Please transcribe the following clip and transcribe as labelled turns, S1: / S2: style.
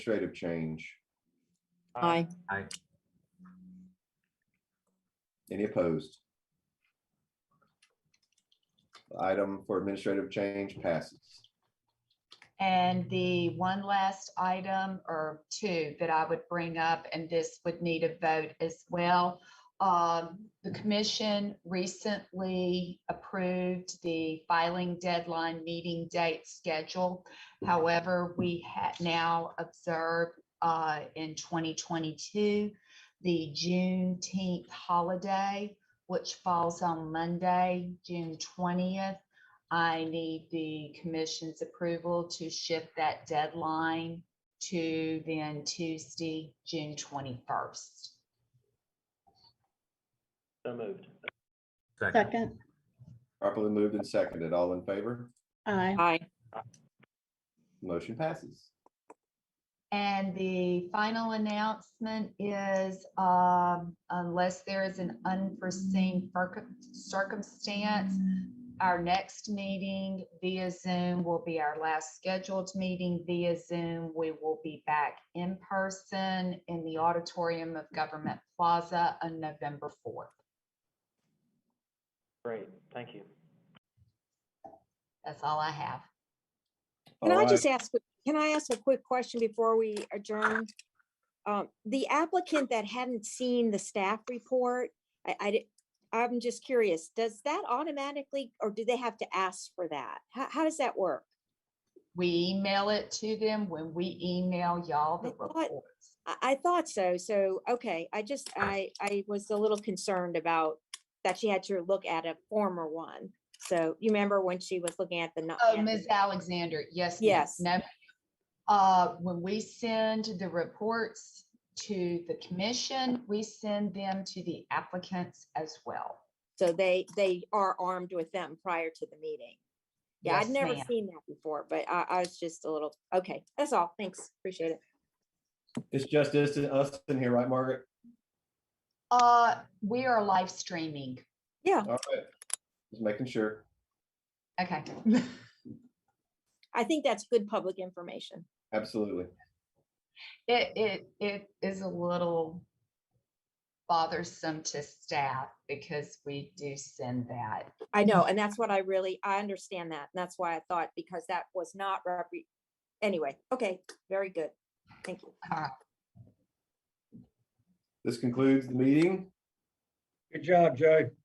S1: administrative change.
S2: Aye.
S1: Any opposed? The Item for administrative change passes.
S3: And the one last item or two that I would bring up, and this would need a vote as well. Um, The commission recently approved the filing deadline meeting date schedule. However, we had now observed uh, in 2022, the Juneteenth holiday, which falls on Monday, June 20th. I need the commission's approval to shift that deadline to then Tuesday, June twenty-first.
S4: So moved.
S5: Second,
S2: Second,
S1: Properly moved and seconded. All in favor?
S5: aye.
S2: aye.
S1: Motion passes.
S3: And the final announcement is, um, unless there is an unforeseen circ- circumstance, our next meeting via Zoom will be our last scheduled meeting via Zoom. We will be back in person in the auditorium of Government Plaza on November fourth.
S4: Great, thank you.
S3: That's all I have.
S6: Can I
S1: All
S6: just ask, can I ask a quick question before we adjourn? Um, The applicant that hadn't seen the staff report, I, I, di- I'm just curious, does that automatically, or do they have to ask for that? How, how does that work?
S3: We email it to them when we email y'all the
S6: I thought-
S3: reports.
S6: I, I thought so, so, okay, I just, I, I was a little concerned about that she had to look at a former one. So you remember when she was looking at the. nu-
S3: Oh,
S6: at the-
S3: Ms. Alexander, yes. ma'am.
S6: Yes.
S3: No. ma'am. Uh, when we send the reports to the commission, we send them to the applicants as well.
S6: So they, they are armed with them prior to the meeting. Yeah, I'd
S3: Yes,
S6: never
S3: ma'am.
S6: seen that before, but I, I was just a little, okay, that's all. Thanks. Appreciate it.
S1: It's just us, us in here, right, Margaret?
S3: Uh, we are live streaming.
S6: Yeah,
S1: All right. Just making sure.
S3: Okay.
S6: I think that's good public information.
S1: Absolutely.
S3: It, it, it is a little bothersome to staff because we do send that.
S6: I know, and that's what I really, I understand that. And that's why I thought, because that was not, repre- anyway, okay, very good. Thank you.
S3: All right.
S1: This concludes the meeting.
S7: Good job, Joe.